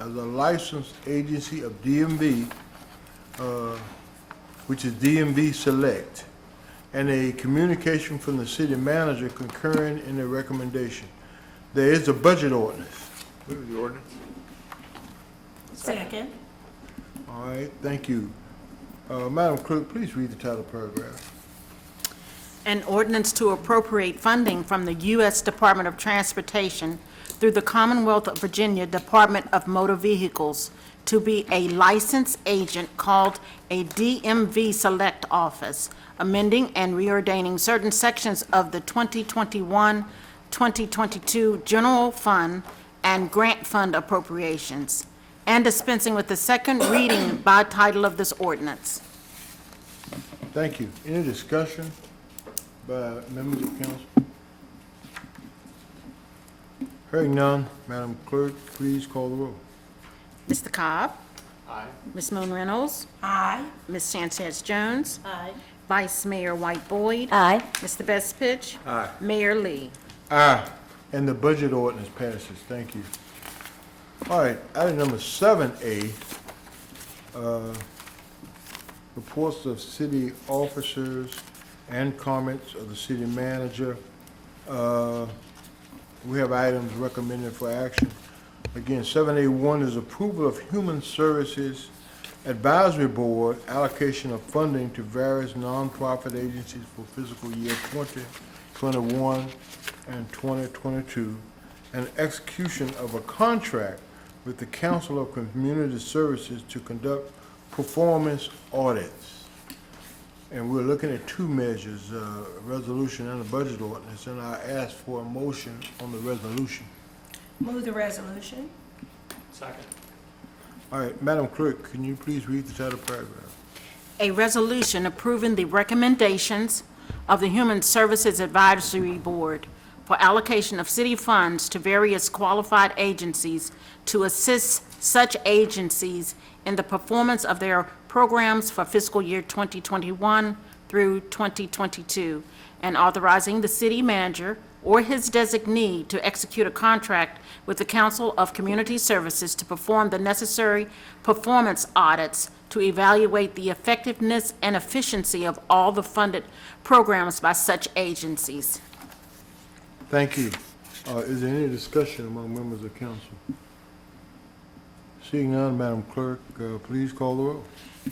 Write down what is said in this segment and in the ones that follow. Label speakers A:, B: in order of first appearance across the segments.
A: as a licensed agency of DMV, uh, which is DMV Select, and a communication from the city manager concurring in the recommendation. There is a budget ordinance.
B: Move the ordinance.
C: Second.
A: All right, thank you. Uh, Madam Clerk, please read the title paragraph.
C: An ordinance to appropriate funding from the U.S. Department of Transportation through the Commonwealth of Virginia Department of Motor Vehicles to be a licensed agent called a DMV Select Office, amending and reordaining certain sections of the 2021-2022 General Fund and Grant Fund appropriations, and dispensing with the second reading by title of this ordinance.
A: Thank you. Any discussion by members of council? Hearing none, Madam Clerk, please call the roll.
C: Mr. Cobb? Aye. Ms. Moon Reynolds? Aye. Ms. Sanchez Jones? Aye. Vice Mayor White Boyd?
D: Aye.
C: Mr. Bestfitch? Aye. Mayor Lee?
A: Aye. And the budget ordinance passes, thank you. All right, item number seven A, uh, reports of city officers and comments of the city manager. Uh, We have items recommended for action. Again, seven A one is approval of Human Services Advisory Board allocation of funding to various nonprofit agencies for fiscal year twenty twenty-one and twenty twenty-two, and execution of a contract with the Council of Community Services to conduct performance audits. And we're looking at two measures, uh, a resolution and a budget ordinance, and I ask for a motion on the resolution.
D: Move the resolution.
B: Second.
A: All right, Madam Clerk, can you please read the title paragraph?
C: A resolution approving the recommendations of the Human Services Advisory Board for allocation of city funds to various qualified agencies to assist such agencies in the performance of their programs for fiscal year 2021 through 2022, and authorizing the city manager or his designee to execute a contract with the Council of Community Services to perform the necessary performance audits to evaluate the effectiveness and efficiency of all the funded programs by such agencies.
A: Thank you. Uh, Is there any discussion among members of council? Seeing none, Madam Clerk, uh, please call the roll.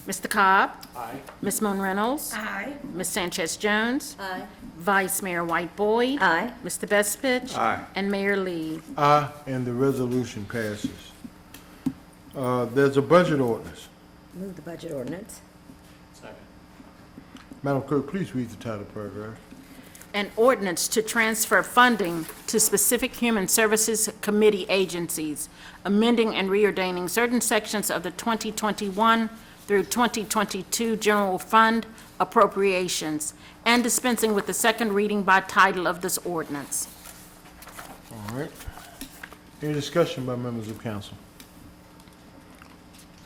C: Mr. Cobb?
B: Aye.
C: Ms. Moon Reynolds?
D: Aye.
C: Ms. Sanchez Jones?
D: Aye.
C: Vice Mayor White Boyd?
D: Aye.
C: Mr. Bestfitch?
B: Aye.
C: And Mayor Lee?
A: Aye, and the resolution passes. Uh, There's a budget ordinance.
D: Move the budget ordinance.
B: Second.
A: Madam Clerk, please read the title paragraph.
C: An ordinance to transfer funding to specific Human Services Committee agencies, amending and reordaining certain sections of the 2021 through 2022 General Fund appropriations, and dispensing with the second reading by title of this ordinance.
A: All right. Any discussion by members of council?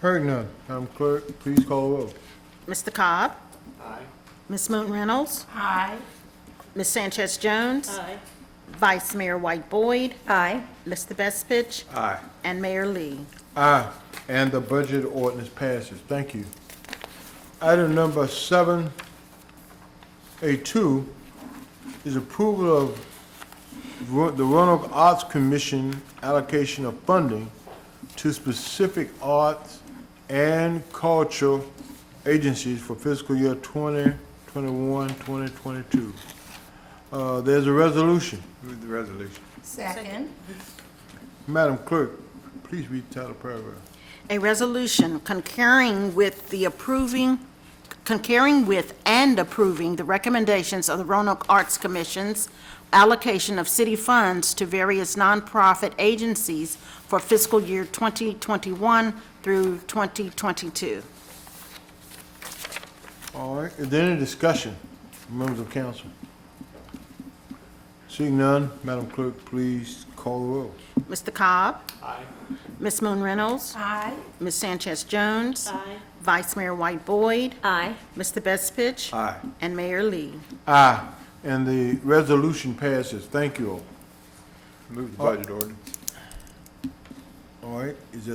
A: Hearing none, Madam Clerk, please call the roll.
C: Mr. Cobb?
B: Aye.
C: Ms. Moon Reynolds?
D: Aye.
C: Ms. Sanchez Jones?
D: Aye.
C: Vice Mayor White Boyd?
D: Aye.
C: Mr. Bestfitch?
B: Aye.
C: And Mayor Lee?
A: Aye, and the budget ordinance passes. Thank you. Item number seven, A2, is approval of Ro- the Roanoke Arts Commission allocation of funding to specific arts and cultural agencies for fiscal year 2021, 2022. Uh, There's a resolution.
B: Move the resolution.
D: Second.
A: Madam Clerk, please read the title paragraph.
C: A resolution concurring with the approving, concurring with and approving the recommendations of the Roanoke Arts Commission's allocation of city funds to various nonprofit agencies for fiscal year 2021 through 2022.
A: All right, is there any discussion, members of council? Seeing none, Madam Clerk, please call the roll.
C: Mr. Cobb?
B: Aye.
C: Ms. Moon Reynolds?
D: Aye.
C: Ms. Sanchez Jones? Aye. Vice Mayor White Boyd?
D: Aye.
C: Mr. Bestfitch?
B: Aye.
C: And Mayor Lee?
A: Aye. And the resolution passes, thank you all.
B: Move the budget ordinance.
A: All right, is there